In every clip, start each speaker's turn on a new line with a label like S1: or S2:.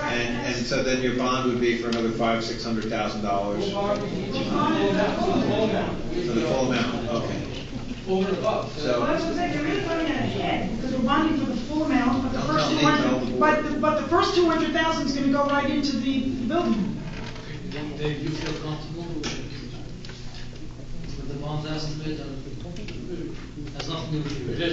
S1: And, and so then your bond would be for another five, six hundred thousand dollars. For the full amount, okay.
S2: over and above.
S1: So-
S3: Well, that's what I'm saying, there is money on the end, because we're bonding for the full amount, but the
S1: Don't
S3: first
S1: tell
S3: two
S1: me,
S3: hundred,
S1: no.
S3: but, the- but the first two hundred thousand is gonna go right into the building.
S2: Dave, you feel comfortable with the bond estimate and has nothing to do with it?
S4: There's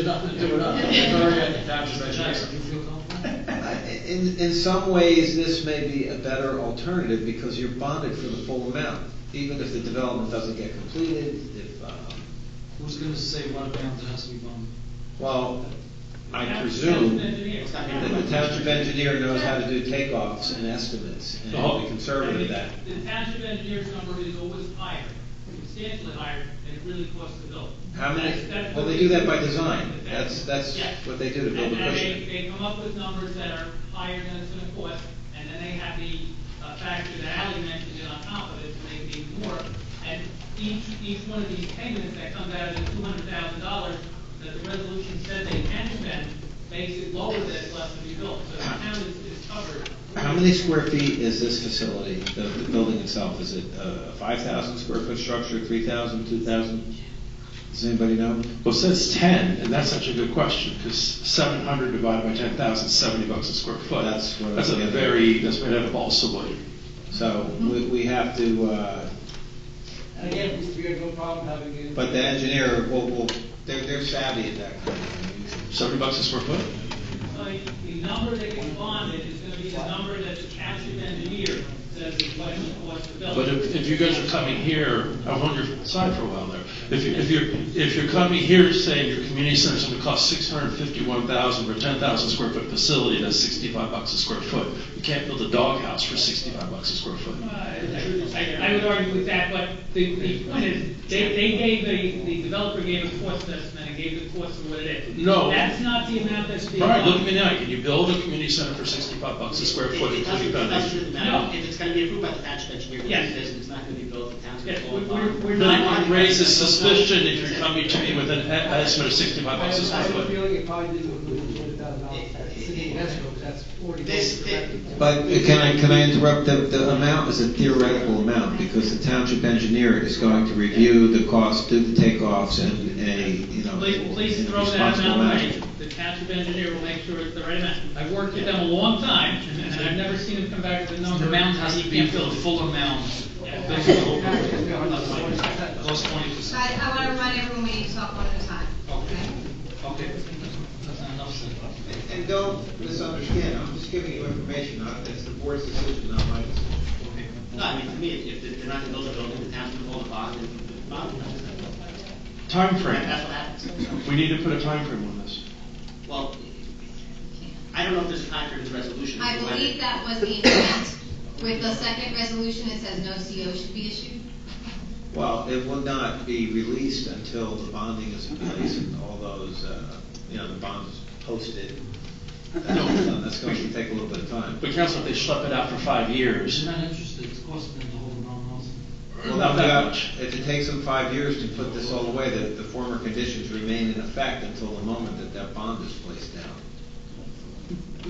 S4: nothing to do with us. It's already at the tax
S2: Jackson,
S4: registration.
S2: you feel comfortable?
S1: In, in some ways, this may be a better alternative because you're bonded for the full amount, even if the development doesn't get completed, if, um,
S2: Who's gonna say what amount it has to be bonded?
S1: well, I presume that the township engineer knows how to do takeoffs and estimates and will be conservative at that.
S5: The township engineer's number is always higher, substantially higher than it really costs to build.
S1: How many,
S5: That's- that's
S1: well,
S5: what
S1: they do that by design, that's, that's
S5: Yes.
S1: what they do to build
S5: And
S1: a
S5: and they,
S1: cushion.
S5: they come up with numbers that are higher than it's gonna cost, and then they have the uh, factor that Ali mentioned in on top of it, to make it even more. And each, each one of these payments that comes out of the two hundred thousand dollars that the resolution said they can spend, makes it lower than it's left to be built, so the town is, is covered.
S1: How many square feet is this facility, the, the building itself, is it a five thousand square foot structure, three thousand, two thousand? Does anybody know?
S6: Well, it says ten, and that's such a good question, because seven hundred divided by ten thousand is seventy bucks a square foot.
S1: That's what I was
S6: That's a
S1: getting at.
S6: very, that's made up of all wood.
S1: So we, we have to, uh,
S2: And again, we have no problem having it.
S1: but the engineer, will will they're, they're savvy at that kind of thing.
S6: Seventy bucks a square foot?
S5: So the number that gets bonded is gonna be the number that the township engineer says is what it costs to build.
S6: But if, if you guys are coming here, I was on your side for a while there. If, you- if you're, if you're coming here saying your community center's gonna cost six hundred and fifty-one thousand for ten thousand square foot facility, that's sixty-five bucks a square foot. You can't build a doghouse for sixty-five bucks a square foot.
S5: Uh, I, I would argue with that, but the, the point is, they, they gave a, the developer gave a cost estimate and gave the cost of what it is.
S6: No.
S5: That's not the amount that's being.
S6: All right, look at me now, can you build a community center for sixty-five bucks a square foot,
S7: It doesn't,
S6: including
S7: it doesn't
S6: foundation?
S7: really
S5: No.
S7: matter, if it's gonna be approved by the township engineer, we'll
S5: Yes.
S7: do this, and it's not gonna be built, the township.
S5: Yes,
S7: will
S5: we're-
S7: bond.
S5: we're- we're
S6: Then
S5: not-
S6: it raises suspicion if you're coming to me with an e- estimate of sixty-five bucks a
S2: I
S6: square
S2: have a
S6: foot.
S2: feeling it probably didn't include the twenty thousand dollars, that's in the escrow, 'cause that's forty.
S7: This-
S1: But uh, can I, can I interrupt, the, the amount is a theoretical amount, because the township engineer is going to review the cost, do the takeoffs, and a, you know,
S5: Please, please
S1: and
S5: throw that
S1: responsible
S5: amount away.
S1: management.
S5: The township engineer will make sure it's the right amount. I've worked with them a long time, and I've never seen them come back with a number.
S2: The amount has to
S5: you
S2: be
S5: can't
S2: the
S5: build.
S2: full amount.
S5: Yeah,
S2: That's
S5: that's
S2: the
S5: the whole-
S2: whole- that's like- Plus twenty percent.
S8: I, I want to remind everyone we need to talk one at a time.
S2: Okay, okay, that's not enough said.
S1: And- And don't misunderstand, I'm just giving you information, not- it's the board's decision, not my decision.
S7: No, I mean, to me, if- if they're not gonna build a building, the township will hold a bond, and the bond will come.
S6: Time
S7: That's
S6: frame.
S7: what happens.
S6: we need to put a time frame on this.
S7: Well, I don't know if there's a time for this resolution.
S8: I
S7: whether-
S8: believe that was the intent. With the second resolution, it says no CO should be issued.
S1: Well, it will not be released until the bonding is in place and all those, uh, you know, the bonds posted. That's that's going to take a little bit of time.
S6: But council, if they schlep it out for five years,
S2: She's not interested, it's costing them the whole amount also.
S1: Well,
S6: not that much.
S1: If it takes them five years to put this all away, the, the former conditions remain in effect until the moment that that bond is placed down.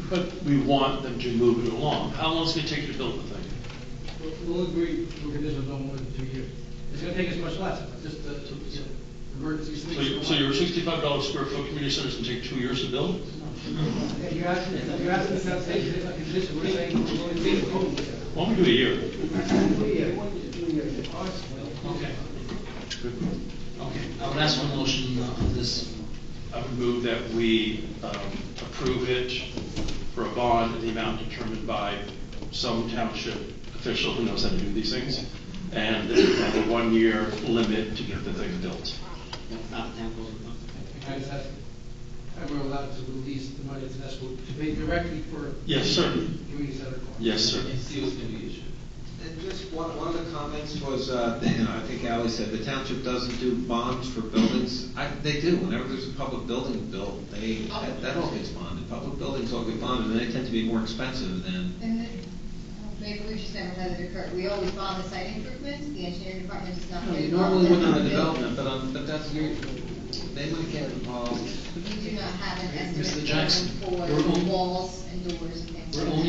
S6: But we want them to move it along. How long is it gonna take you to build the thing?
S2: We'll- We'll agree, we'll condition it on more than two years. It's gonna take us much less, just the, to, you know, emergency.
S6: So you- So your sixty-five dollar square foot community center is gonna take two years to build?
S2: If you're asking, if you're asking, it's not saying, it's not condition, we're saying, we're going to be approved.
S6: Why don't we do a year?
S2: Okay. Okay, I would ask for a motion uh, on this.
S6: I would move that we um, approve it for a bond in the amount determined by some township official who knows how to do these things, and that we have a one-year limit to get the thing built.
S7: That's not the town will hold a bond.
S2: And that's- and we're allowed to release the money to escrow to pay directly for
S6: Yes, sir.
S2: community center costs.
S6: Yes, sir.
S2: see what's gonna be issued.
S1: And just one, one of the comments was, uh, you know, I think Ally said, the township doesn't do bonds for buildings. I, they do, whenever there's a public building built, they, that, that all gets bonded. Public buildings all get bonded, and they tend to be more expensive than,
S8: And then, maybe we should never let it occur. We always bond the site improvements, the engineering department does not get
S1: you
S8: involved.
S1: normally within a development, but, um, but that's, your- they might get involved.
S8: We do not have an
S2: Mr.
S8: estimate
S2: Jackson,
S8: for
S2: we're on-
S8: walls and doors and things like
S2: We're
S8: that.
S2: only